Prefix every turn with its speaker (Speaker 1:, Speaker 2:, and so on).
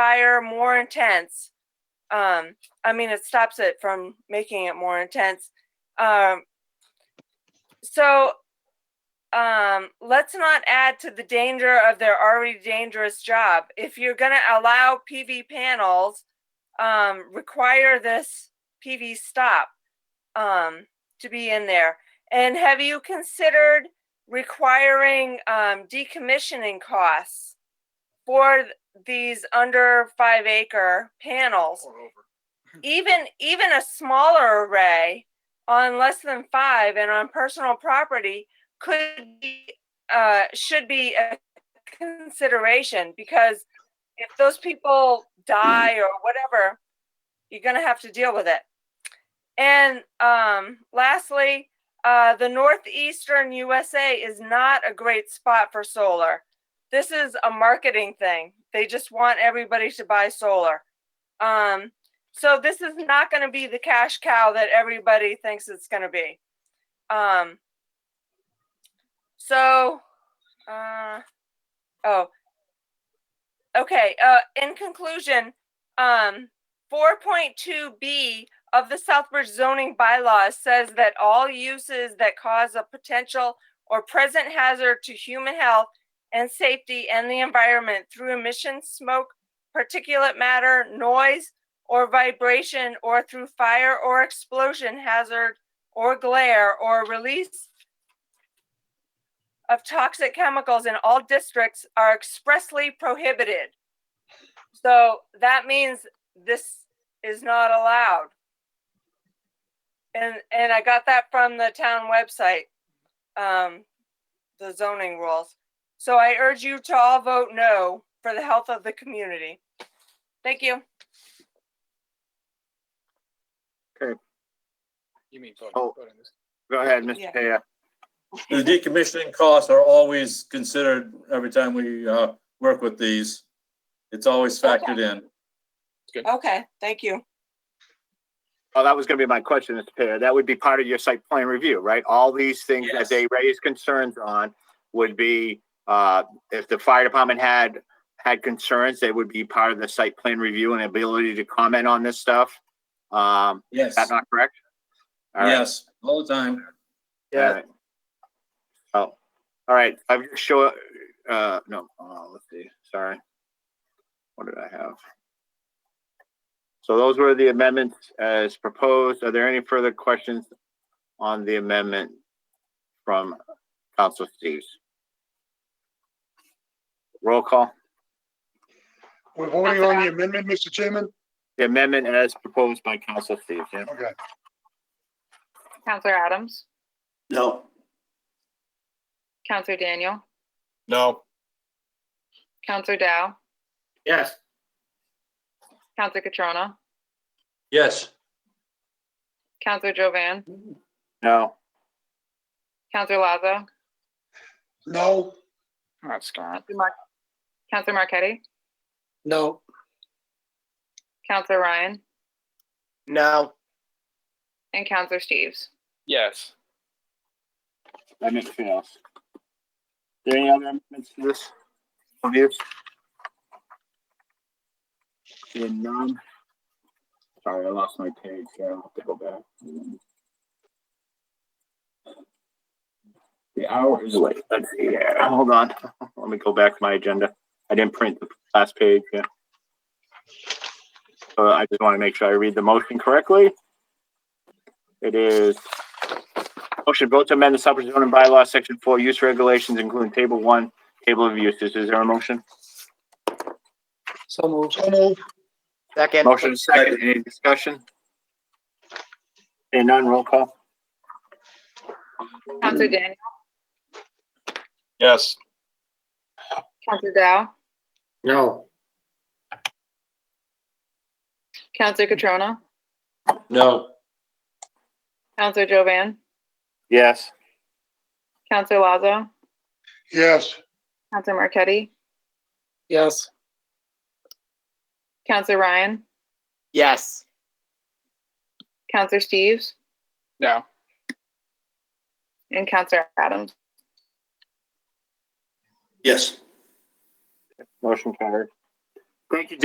Speaker 1: fire more intense. Um, I mean, it stops it from making it more intense. Um, so, um, let's not add to the danger of their already dangerous job. If you're gonna allow PV panels, um, require this PV stop, um, to be in there. And have you considered requiring, um, decommissioning costs for th- these under five acre panels?
Speaker 2: Or over.
Speaker 1: even even a smaller array on less than five and on personal property could be uh, should be a consideration because if those people die or whatever, you're gonna have to deal with it. And um, lastly, uh, the northeastern USA is not a great spot for solar. This is a marketing thing. They just want everybody to buy solar. Um, so this is not going to be the cash cow that everybody thinks it's going to be. Um, so, uh, oh, okay. Uh, in conclusion, um, 4.2b of the Southbridge zoning bylaws says that all uses that cause a potential or present hazard to human health and safety and the environment through emissions, smoke, particulate matter, noise, or vibration or through fire or explosion hazard or glare or release of toxic chemicals in all districts are expressly prohibited. So that means this is not allowed. And, and I got that from the town website, um, the zoning rules. So I urge you to all vote no for the health of the community. Thank you.
Speaker 2: You mean
Speaker 3: Oh.
Speaker 2: vote, vote on this.
Speaker 3: Go ahead,
Speaker 1: Yeah.
Speaker 3: Mr. Taya.
Speaker 4: The decommissioning costs are always considered every time we uh, work with these. It's always factored in.
Speaker 1: Okay, thank you.
Speaker 3: Oh, that was gonna be my question, Mr. Taya. That would be part of your site plan review, right? All these things that
Speaker 4: Yes.
Speaker 3: they raised concerns on would be, uh, if the fire department had, had concerns, they would be part of the site plan review and ability to comment on this stuff. Um,
Speaker 4: Yes,
Speaker 3: is that not correct? All right.
Speaker 4: yes, all the time.
Speaker 3: All right. Oh, all right, I've just show, uh, no, uh, let's see, sorry. What did I have? So those were the amendments as proposed. Are there any further questions on the amendment from Council Steves? Roll call,
Speaker 2: We're voting on the amendment, Mr. Chairman?
Speaker 3: the amendment as proposed by Council Steves, yeah?
Speaker 2: Okay.
Speaker 5: Counselor Adams,
Speaker 4: No.
Speaker 5: Counselor Daniel,
Speaker 2: No.
Speaker 5: Counselor Dow,
Speaker 4: Yes.
Speaker 5: Counselor Catrona,
Speaker 4: Yes.
Speaker 5: Counselor Jovan,
Speaker 3: No,
Speaker 5: Counselor Lazo,
Speaker 2: No.
Speaker 5: That's Counselor Marquetti,
Speaker 2: No.
Speaker 5: Counselor Ryan,
Speaker 2: No.
Speaker 5: and Counselor Steves.
Speaker 2: Yes.
Speaker 3: amendment fails. Is There any other amendments to this? Of yours? Seeing none. Sorry, I lost my page, so I'll have to go back. The hour is late, let's see here, hold on, let me go back to my agenda. I didn't print the last page, yeah. So I just want to make sure I read the motion correctly. It is Motion vote to amend the Southbridge zoning bylaw, section four, use regulations, including table one, table of uses. Is there a motion?
Speaker 2: So moved. So moved.
Speaker 3: Second. Motion is second. Any discussion? Seeing none, roll call.
Speaker 5: Counselor Daniel,
Speaker 4: Yes.
Speaker 5: Counselor Dow,
Speaker 2: No.
Speaker 5: Counselor Catrona,
Speaker 4: No.
Speaker 5: Counselor Jovan,
Speaker 3: Yes.
Speaker 5: Counselor Lazo,
Speaker 2: Yes.
Speaker 5: Counselor Marquetti,
Speaker 2: Yes.
Speaker 5: Counselor Ryan,
Speaker 6: Yes.
Speaker 5: Counselor Steves,
Speaker 6: No.
Speaker 5: and Counselor Adams.
Speaker 4: Yes.
Speaker 3: Motion carried. Thank you,